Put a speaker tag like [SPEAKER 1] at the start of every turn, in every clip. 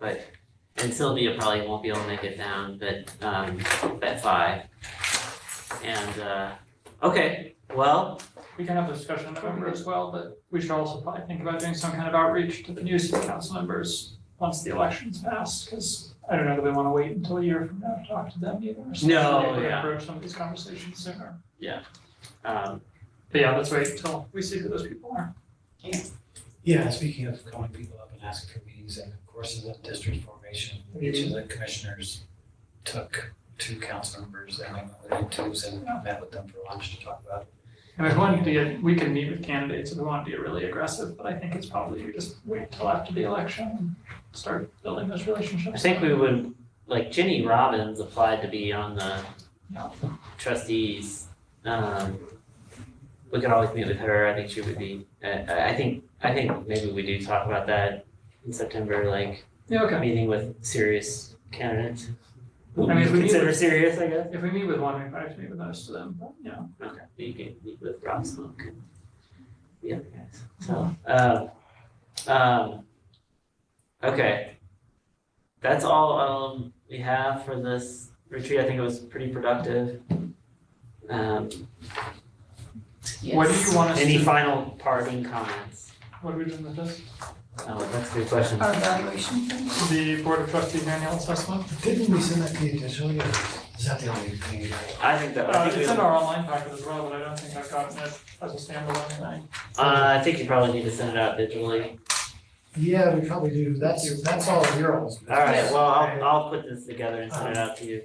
[SPEAKER 1] but, and Sylvia probably won't be able to make it down, but, um, at five. And, uh, okay, well,
[SPEAKER 2] We can have a discussion in November as well, but we should also probably think about doing some kind of outreach to the new city council members once the election's passed, because I don't know that we want to wait until a year from now to talk to them either. So
[SPEAKER 1] No,
[SPEAKER 2] maybe we
[SPEAKER 1] yeah.
[SPEAKER 2] Approach some of these conversations sooner.
[SPEAKER 1] um,
[SPEAKER 2] But yeah, let's wait until we see who those people are.
[SPEAKER 3] Yeah, speaking of calling people up and asking for meetings, and of course, in the district formation, each of the commissioners took two council members and they went to twos and met with them for lunch to talk about.
[SPEAKER 2] And if we wanted to get, we can meet with candidates if we want to be really aggressive, but I think it's probably we just wait till after the election and start building those relationships.
[SPEAKER 1] I think we would, like Ginny Robbins applied to be on the
[SPEAKER 2] Yeah.
[SPEAKER 1] trustees. Um, we could always meet with her, I think she would be, I, I I think, I think maybe we do talk about that in September, like,
[SPEAKER 2] Yeah, okay.
[SPEAKER 1] meeting with serious candidates. Who
[SPEAKER 2] I mean, if we
[SPEAKER 1] we
[SPEAKER 2] meet
[SPEAKER 1] consider
[SPEAKER 2] with-
[SPEAKER 1] serious, I guess.
[SPEAKER 2] If we meet with one, we probably have to meet with most of them, but you know,
[SPEAKER 1] Okay, you can meet with Rob Smoke and the other guys, so, um, um, okay. That's all, um, we have for this retreat, I think it was pretty productive. Um,
[SPEAKER 2] what do you want us to?
[SPEAKER 1] any final parting comments?
[SPEAKER 2] What are we doing with this?
[SPEAKER 1] Oh, that's a good question.
[SPEAKER 4] Our evaluation thing?
[SPEAKER 2] the Board of Trustees annual assessment.
[SPEAKER 3] Didn't we send that to you initially, or is that the only thing? you got?
[SPEAKER 1] I think that, I
[SPEAKER 2] Uh,
[SPEAKER 1] think we,
[SPEAKER 2] it's in
[SPEAKER 1] uh,
[SPEAKER 2] our online packet as well, but I don't think I've gotten it as a standalone tonight.
[SPEAKER 1] Uh, I think you probably need to send it out digitally.
[SPEAKER 3] Yeah, we probably do, that's, that's all of your old.
[SPEAKER 1] All right, well, I'll, I'll put this together and send it out to you.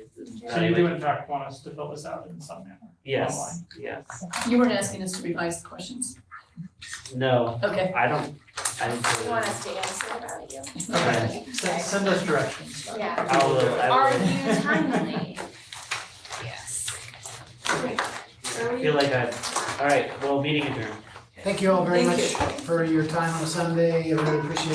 [SPEAKER 2] So you Uh, do in fact want us to fill this out in some manner.
[SPEAKER 1] Yes, yes,
[SPEAKER 4] You weren't asking us to revise the questions.
[SPEAKER 1] no,
[SPEAKER 4] Okay.
[SPEAKER 1] I don't, I didn't.
[SPEAKER 5] You want us to answer about you?
[SPEAKER 1] Okay.
[SPEAKER 2] Send, send us directions. uh,
[SPEAKER 5] Yeah.
[SPEAKER 1] I will, I will.
[SPEAKER 5] Are you timely? Yes.
[SPEAKER 1] I feel like I, alright, well, meeting adjourned.
[SPEAKER 3] Thank you all very
[SPEAKER 4] Thank
[SPEAKER 3] much for your time on a Sunday, I really appreciate